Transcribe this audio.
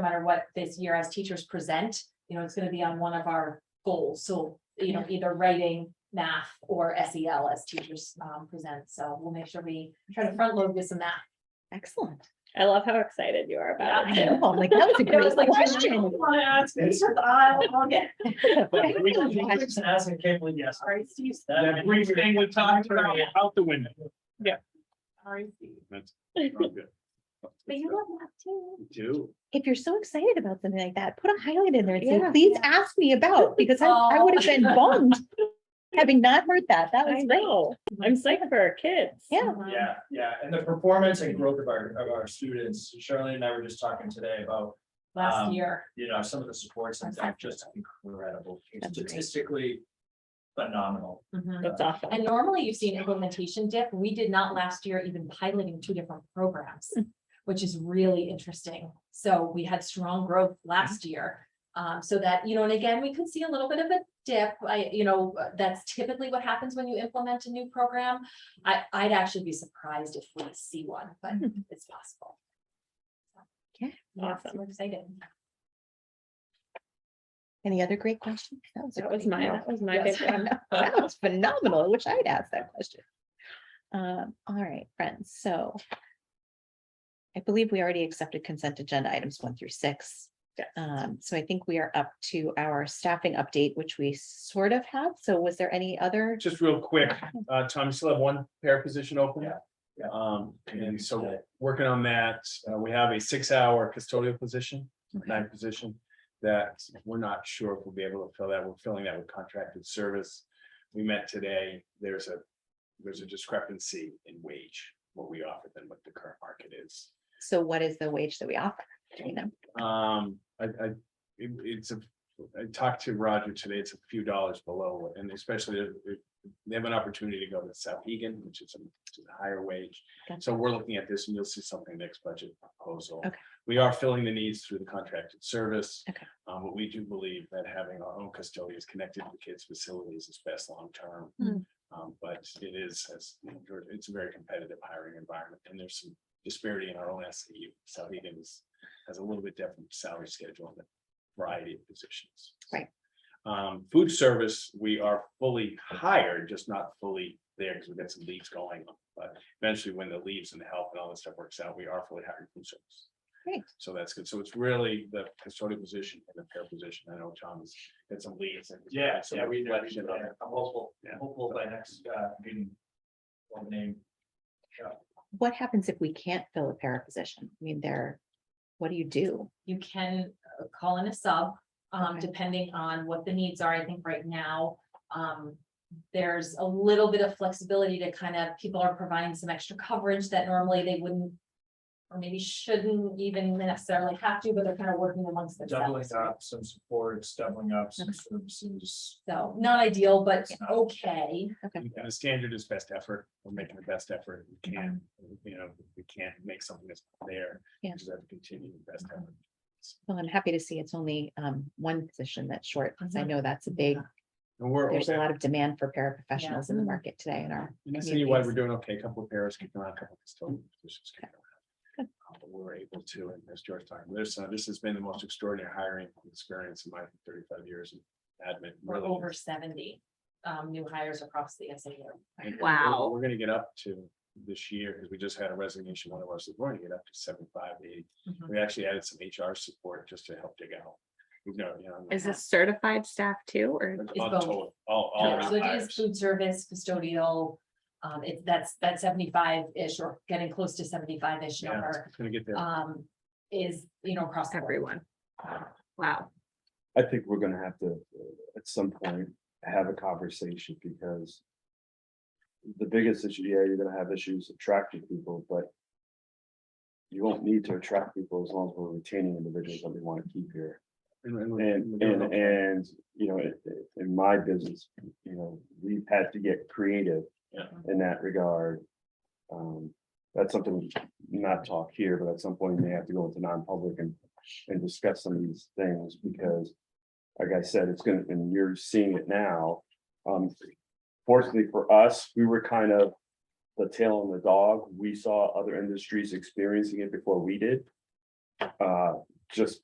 no matter what this year as teachers present, you know, it's gonna be on one of our goals. So, you know, either writing, math or SEL as teachers um present. So we'll make sure we try to front load this and that. Excellent. I love how excited you are about I it. too. know, I'm like, that was a It was great like, I question. don't wanna ask this, but I'll- I'll get- That brief thing Question. with us, I can't believe yes. Sorry, Steve. That brief thing we talked about out the window. Sorry, Steve. That's not good. But you love math too. Do. If you're so excited about something like that, put a highlight in there and say, Yeah. please ask me about, because I, I would have been Oh. bummed. Having not heard that, that I was great. know. I'm psyched for our kids. Yeah. Mhm. Yeah, yeah, and the performance and growth of our, of our students, Charlene and I were just talking today about, Last Um, year. you know, some of the supports and that, just incredible, That's great. statistically phenomenal. Mhm. That's awesome. And normally you've seen implementation dip. We did not last year even piloting two different programs, which is really interesting. So we had strong growth last year. Um, so that, you know, and again, we could see a little bit of a dip. I, you know, that's typically what happens when you implement a new program. I, I'd actually be surprised if we see one, but it's possible. Okay. Yeah, so Awesome. we're excited. Any other great questions? a That was great my, one. that was my Yes, big I one. know. That was phenomenal. I wish I'd asked that question. Um, all right, friends, so. I believe we already accepted consent agenda items one through six. Yes. Um, so I think we are up to our staffing update, which we sort of have. So was there any other? Just real quick, uh, Tom, you still have one pair position open? Yeah, yeah. Um, and so working on that, uh, we have a six-hour custodial position, nine position. That we're not sure if we'll be able to fill that. We're filling that with contracted service. We met today. There's a, there's a discrepancy in wage, what we offer than what the current market is. So what is the wage that we offer? Do we know? Um, I, I, it- it's a, I talked to Roger today, it's a few dollars below, and especially if, if they have an opportunity to go to South Egan, which is a, which is a higher wage. Gotcha. So we're looking at this and you'll see something next budget proposal. Okay. We are filling the needs through the contracted service. Okay. Um, but we do believe that having our own custodians connected to kids' facilities is best long-term. Mm. Um, but it is, as, you know, George, it's a very competitive hiring environment and there's some disparity in our own SAU. South Egan is has a little bit different salary schedule and a variety of positions. Right. Um, food service, we are fully hired, just not fully there because we've got some leaves going on. But eventually, when the leaves and the help and all this stuff works out, we are fully hired in food service. Great. So that's good. So it's really the custodial position and the pair position. I know Tom's got some leaves and. Yeah, some yeah, we, we- reflection on I'm it. hopeful, Yeah. hopeful by next, uh, meeting. Well, name, What happens if we can't fill a para position? I mean, there, what do you do? you can uh, call in a sub, um, Okay. depending on what the needs are. I think right now, um, there's a little bit of flexibility to kind of, people are providing some extra coverage that normally they wouldn't or maybe shouldn't even necessarily have to, but they're kind of working amongst doubling themselves. up some supports, doubling up some services. So not ideal, but Yeah. okay. And The standard is best effort. We're making the best effort we can, you know, if we can't make something that's there. Yeah. we Uh-huh. Just have to continue the best effort. Well, I'm happy to see it's only um one position that's short, because I Mhm. know that's a big, And we're. there's a lot of demand for paraprofessionals in the Mhm. market today in our. In the community city wide, is- we're doing okay, a couple of pairs kicking around, a Mm-hmm. couple of custodial positions kicking around. Uh, But we're able to, and as George talked, this, uh, this has been the most extraordinary hiring experience in my thirty-five years in admin. We're really. over seventy, um, new hires across the SAU. And we're- Wow. We're gonna get up to this year, because we just had a resignation, one of us, we're gonna get up to seventy-five, eighty. Mhm. We actually added some HR support just to help dig out. We've known, you know. Is this certified staff too, or? All, both. total, all, all. Yeah, our So it is hires. food service, custodial, um, it, that's, that seventy-five-ish or getting close to seventy-five-ish Yeah, number, it's Gonna get there. um, is, you know, across the board. Everyone. Wow. I think we're gonna have to, uh, at some point, have a conversation because. The biggest issue, yeah, you're gonna have issues attracting people, but. You won't need to attract people as long as we're retaining individuals that we wanna keep here. And- and we're- And, we're doing and, okay. and, you know, i- i- in my business, you know, we've had to get creative. Yeah. In that regard. Um, that's something we should not talk here, but at some point we may have to go into non-public and, and discuss some of these things because. Like I said, it's gonna, and you're seeing it now. Um, fortunately for us, we were kind of. The tail on the dog. We saw other industries experiencing it before we did. Uh, just